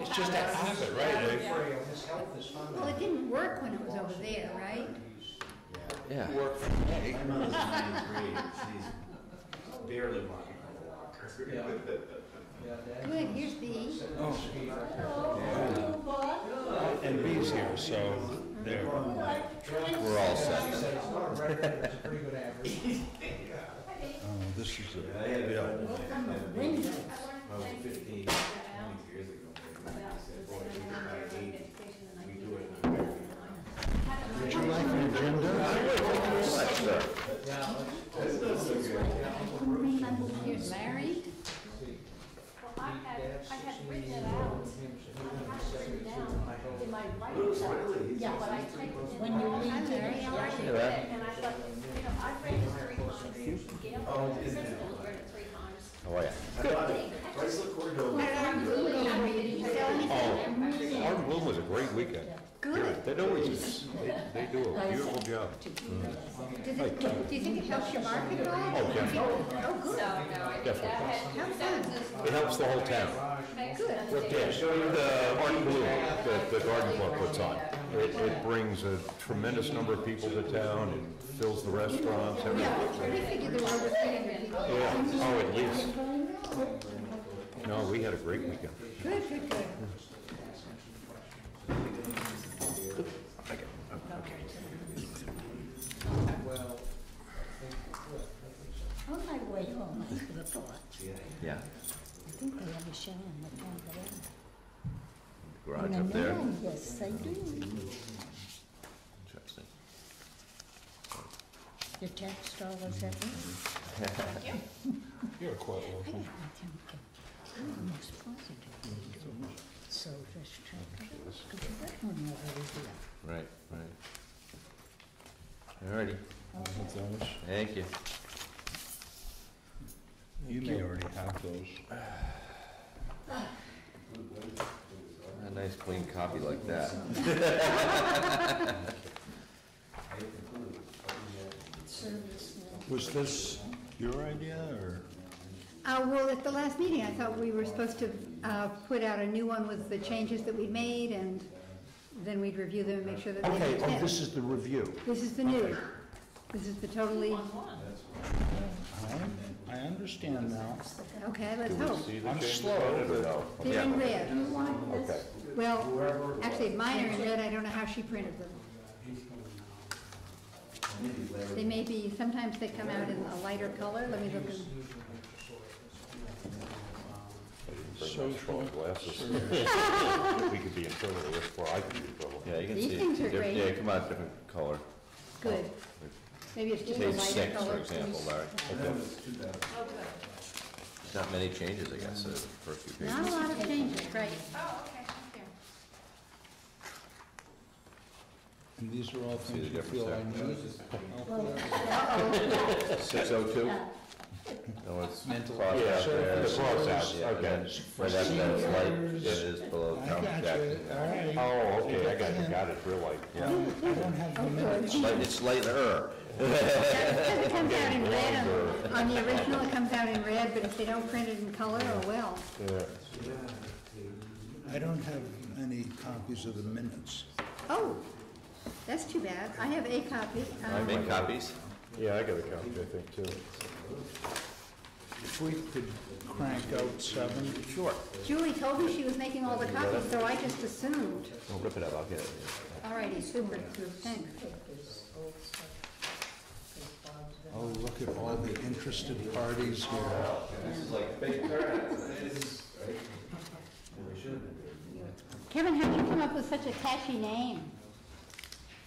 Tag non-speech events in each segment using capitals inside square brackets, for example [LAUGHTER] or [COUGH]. It's just a habit, right? Like, Free, his health is fine. Well, it didn't work when it was over there, right? Yeah. Work for me. My mother's in grade, she's barely walking. Yeah. Oh. Good, here's B. And B's here, so there. We're He all set. said it's not a record, but it's a pretty good [LAUGHS] average. Oh, This is I a, had a friend From the that when window. I was 15, 20 years ago, he said, boy, we do it by age, we do it in America. Would you like an agenda? That's not so good. Here's married. Well, I had, I had written it out, I had it written down in my Bruce writing. Willis, he's- Yeah, but I he's pretty typed close. it in. When you leave I there. didn't realize it, And I thought, you know, I read it three times, Gail, Oh, the isn't it? principal read it three times. how are ya? I thought it- Chrysler Cordova. Oh, Hard Bloom was a great weekend. Good. That always, they they do a beautiful job. Does it, do you think it helps your market at all? Oh, definitely. Oh, So, no, good. I did that. Definitely. How fun. It helps the whole town. Good. Yeah, the Art Blue that the garden club puts on. It, it brings a tremendous number of people to town and fills the restaurants, everything. Yeah, we figured there were over 300 people. Yeah, oh, at least. No, we had a great weekend. Good, good, good. Well, On my way home, I could have thought, Yeah. I think they have a show in the town that I- Garage And I know, Yes, they do. Interesting. The tax dollars at least. [LAUGHS] You're quite welcome. I think I'm almost positive they do. So just check it out, 'cause that one over there. Right, right. All righty, thank you. You may already have those. A nice clean copy like that. Was this your idea, or? Uh, well, at the last meeting, I thought we were supposed to, uh, put out a new one with the changes that we made and then we'd review them and make sure that they Okay, fit. oh, this is the review. This is the new. This is the totally, I understand now. okay, let's hope. I'm slow. They're in red. Okay. Well, actually, mine are in red, I don't know how she printed them. They may be, sometimes they come out in a lighter color, let me look. in- So glasses. [LAUGHS] We could be in trouble with, or I could be in trouble. Yeah, you can see. These things are diff- great. Yeah, come out different color. Good. Maybe it's just a Page lighter six, for color. example, Larry. Oh, good. There's Not many changes, I guess, uh, for a few Not a pages. lot of [LAUGHS] changes, right. Oh, okay, thank you. And these are all See the things you difference feel I there? need. Six oh two? No, it's Mental- crossed Yeah, out there. the cross out, Yeah, and then- okay. Right after that, it's light, Seniors. it is below I town got you, projection. all right. Oh, okay, I got, you. got it, real light. Yeah, I don't have the minutes. Light- it's lighter. Because it comes out in red, on- on the original, it comes out in red, but if they don't print it in color, oh well. Yeah. I don't have any copies of the minutes. Oh, that's too bad. I have a copy. I Um, make copies. Yeah, I got a copy, I think, too. If we could crank out seven. Sure. Julie told me she was making all the copies, so I just assumed. I'll rip it up, I'll get it. All righty, super, thanks. Oh, look at all the interested parties here. Kevin, how'd you come up with such a catchy name?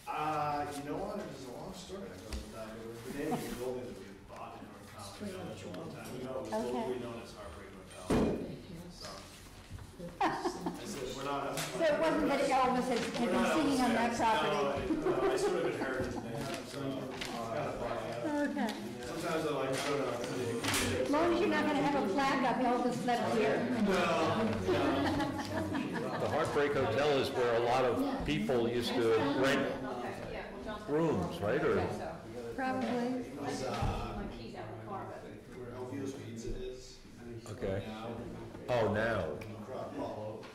Uh, you know what, it was a long story, I goes back, it was the name of the building that we bought in North College, that was a long time ago, it was locally known as Heartbreak Hotel, so. I said, we're not. So it wasn't that Elvis had had we're not been singing on that upstairs." property? No, I- no, I sort of inherited the name, so, I gotta buy it. Okay. sometimes I like, I don't know, I mean, As long as you're not gonna have a flag up, Elvis left here. The Heartbreak Hotel is where a lot of people used to rent rooms, right, or? Probably. where Elvio's Pizza is, Okay. Oh, now,